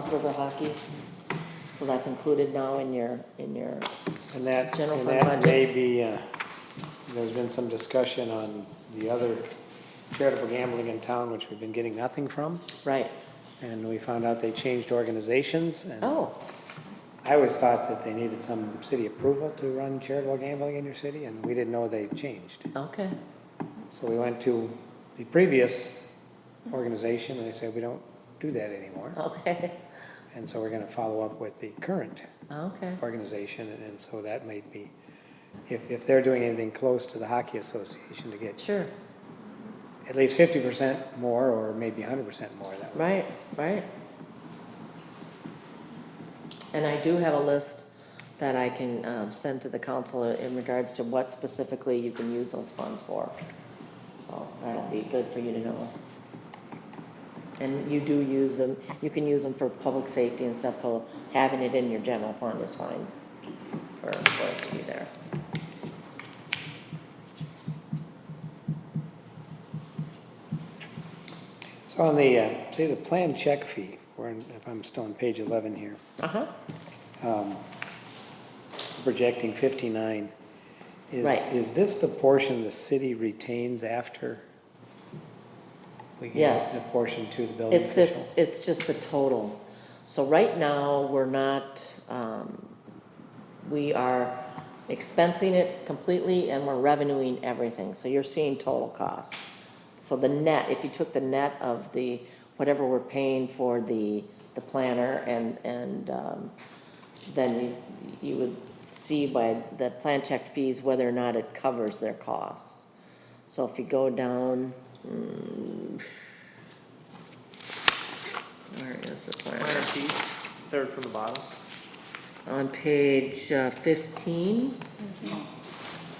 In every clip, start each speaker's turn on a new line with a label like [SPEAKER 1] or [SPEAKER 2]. [SPEAKER 1] River Hockey. So that's included now in your, in your,
[SPEAKER 2] And that,
[SPEAKER 1] General
[SPEAKER 2] and
[SPEAKER 1] fund
[SPEAKER 2] that
[SPEAKER 1] budget.
[SPEAKER 2] may be, uh, there's been some discussion on the other charitable gambling in town, which we've been getting nothing from.
[SPEAKER 1] right,
[SPEAKER 2] And we found out they changed organizations. and
[SPEAKER 1] oh,
[SPEAKER 2] I always thought that they needed some city approval to run charitable gambling in your city, and we didn't know they changed.
[SPEAKER 1] okay,
[SPEAKER 2] So we went to the previous organization, and they said, we don't do that anymore.
[SPEAKER 1] okay,
[SPEAKER 2] And so we're gonna follow up with the current
[SPEAKER 1] okay,
[SPEAKER 2] organization, and- and so that might be, if, if they're doing anything close to the hockey association to get
[SPEAKER 1] sure,
[SPEAKER 2] at least fifty percent more, or maybe hundred percent more, that would.
[SPEAKER 1] right, right. And I do have a list that I can, um, send to the council in regards to what specifically you can use those funds for. So that'll be good for you to know. And you do use them, you can use them for public safety and stuff, so having it in your general fund is fine for, for it to be there.
[SPEAKER 2] So on the, uh, see the plan check fee, we're in if I'm still on page eleven here,
[SPEAKER 1] Uh-huh,
[SPEAKER 2] um, projecting fifty-nine. Is,
[SPEAKER 1] Right.
[SPEAKER 2] is this the portion the city retains after? we give
[SPEAKER 1] Yes.
[SPEAKER 2] The portion to the building
[SPEAKER 1] it's
[SPEAKER 2] official?
[SPEAKER 1] just, it's just the total. So right now, we're not, um, we are expensing it completely and we're revenuing everything, so you're seeing total cost. So the net, if you took the net of the, whatever we're paying for the, the planner and, and, um, then you, you would see by the plan check fees whether or not it covers their costs. So if you go down, mm, where is the
[SPEAKER 3] Minor
[SPEAKER 1] planner?
[SPEAKER 3] fees, third from the bottom.
[SPEAKER 1] On page uh, fifteen.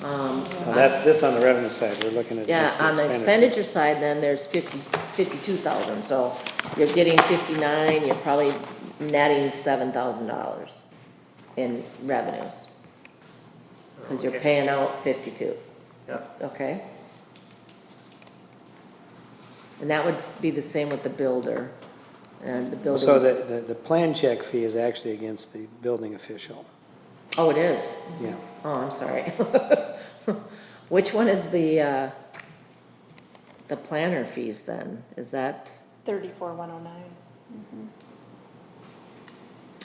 [SPEAKER 1] Um,
[SPEAKER 2] Now, that's, that's on the revenue side, we're looking at.
[SPEAKER 1] Yeah,
[SPEAKER 2] that's
[SPEAKER 1] on the
[SPEAKER 2] expenditure.
[SPEAKER 1] expenditure side, then there's fifty, fifty-two thousand, so you're getting fifty-nine, you're probably netting seven thousand dollars in revenues. Cause you're
[SPEAKER 3] Okay.
[SPEAKER 1] paying out fifty-two,
[SPEAKER 3] Yeah,
[SPEAKER 1] okay? And that would be the same with the builder, and the builder.
[SPEAKER 2] So the, the, the plan check fee is actually against the building official,
[SPEAKER 1] Oh, it is,
[SPEAKER 2] yeah.
[SPEAKER 1] oh, I'm sorry. Which one is the, uh, the planner fees then, is that?
[SPEAKER 4] Thirty-four, one oh nine.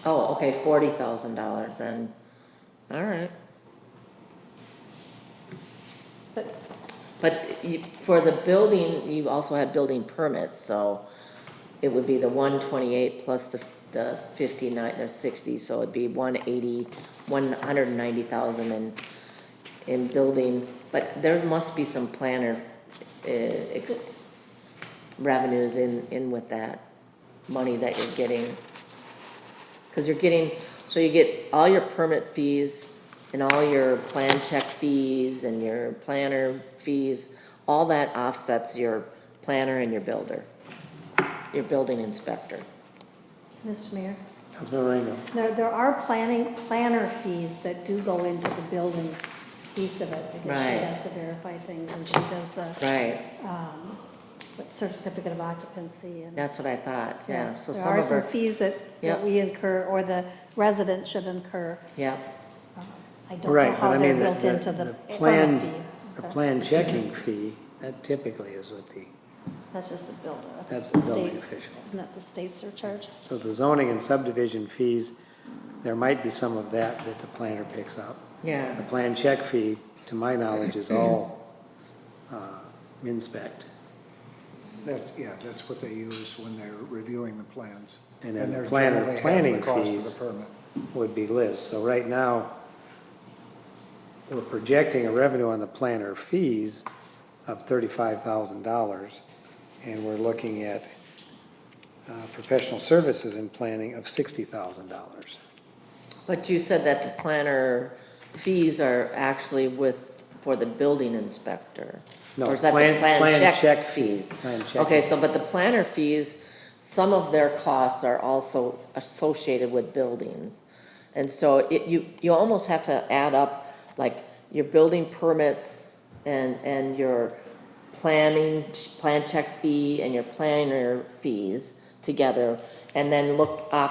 [SPEAKER 1] Oh, okay, forty thousand dollars then, all right.
[SPEAKER 4] But-
[SPEAKER 1] But you, for the building, you also had building permits, so it would be the one twenty-eight plus the, the fifty-nine, or sixty, so it'd be one eighty, one hundred and ninety thousand in, in building, but there must be some planner, uh, ex, revenues in, in with that money that you're getting. Because you're getting, so you get all your permit fees and all your plan check fees and your planner fees, all that offsets your planner and your builder, your building inspector.
[SPEAKER 5] Mr. Mayor,
[SPEAKER 2] Councilmember Rainville.
[SPEAKER 5] there, there are planning, planner fees that do go into the building piece of it, because she
[SPEAKER 1] Right.
[SPEAKER 5] has to verify things, and she does the,
[SPEAKER 1] Right.
[SPEAKER 5] um, what certificate of occupancy and.
[SPEAKER 1] That's what I thought, yeah, so
[SPEAKER 5] There
[SPEAKER 1] some
[SPEAKER 5] are
[SPEAKER 1] of
[SPEAKER 5] some
[SPEAKER 1] her,
[SPEAKER 5] fees that,
[SPEAKER 1] Yep.
[SPEAKER 5] that we incur, or the resident should incur. um,
[SPEAKER 1] yeah,
[SPEAKER 5] I don't know
[SPEAKER 2] Right, but
[SPEAKER 5] how
[SPEAKER 2] I
[SPEAKER 5] they're
[SPEAKER 2] mean, the,
[SPEAKER 5] built into
[SPEAKER 2] the,
[SPEAKER 5] the
[SPEAKER 2] the
[SPEAKER 5] permit
[SPEAKER 2] plan,
[SPEAKER 5] fee.
[SPEAKER 2] the
[SPEAKER 5] Okay.
[SPEAKER 2] plan checking fee, that typically is what the,
[SPEAKER 5] That's just the builder,
[SPEAKER 2] that's
[SPEAKER 5] that's
[SPEAKER 2] the
[SPEAKER 5] the
[SPEAKER 2] building
[SPEAKER 5] state,
[SPEAKER 2] official.
[SPEAKER 5] isn't that the state's are charged?
[SPEAKER 2] So the zoning and subdivision fees, there might be some of that that the planner picks up.
[SPEAKER 1] yeah,
[SPEAKER 2] The plan check fee, to my knowledge, is all, uh, inspect.
[SPEAKER 6] That's, yeah, that's what they use when they're reviewing the plans.
[SPEAKER 2] And then
[SPEAKER 6] they're
[SPEAKER 2] planner
[SPEAKER 6] generally half
[SPEAKER 2] planning
[SPEAKER 6] the cost of
[SPEAKER 2] fees.
[SPEAKER 6] the permit.
[SPEAKER 2] would be Liz. So right now, we're projecting a revenue on the planner fees of thirty-five thousand dollars, and we're looking at uh, professional services and planning of sixty thousand dollars.
[SPEAKER 1] but you said that the planner fees are actually with, for the building inspector.
[SPEAKER 2] No,
[SPEAKER 1] Or is that the
[SPEAKER 2] plan- plan
[SPEAKER 1] check
[SPEAKER 2] check fee, plan check
[SPEAKER 1] Okay,
[SPEAKER 2] fee.
[SPEAKER 1] so, but the planner fees, some of their costs are also associated with buildings. And so it, you, you almost have to add up, like, your building permits and, and your planning, plan check fee and your planner fees together, and then look off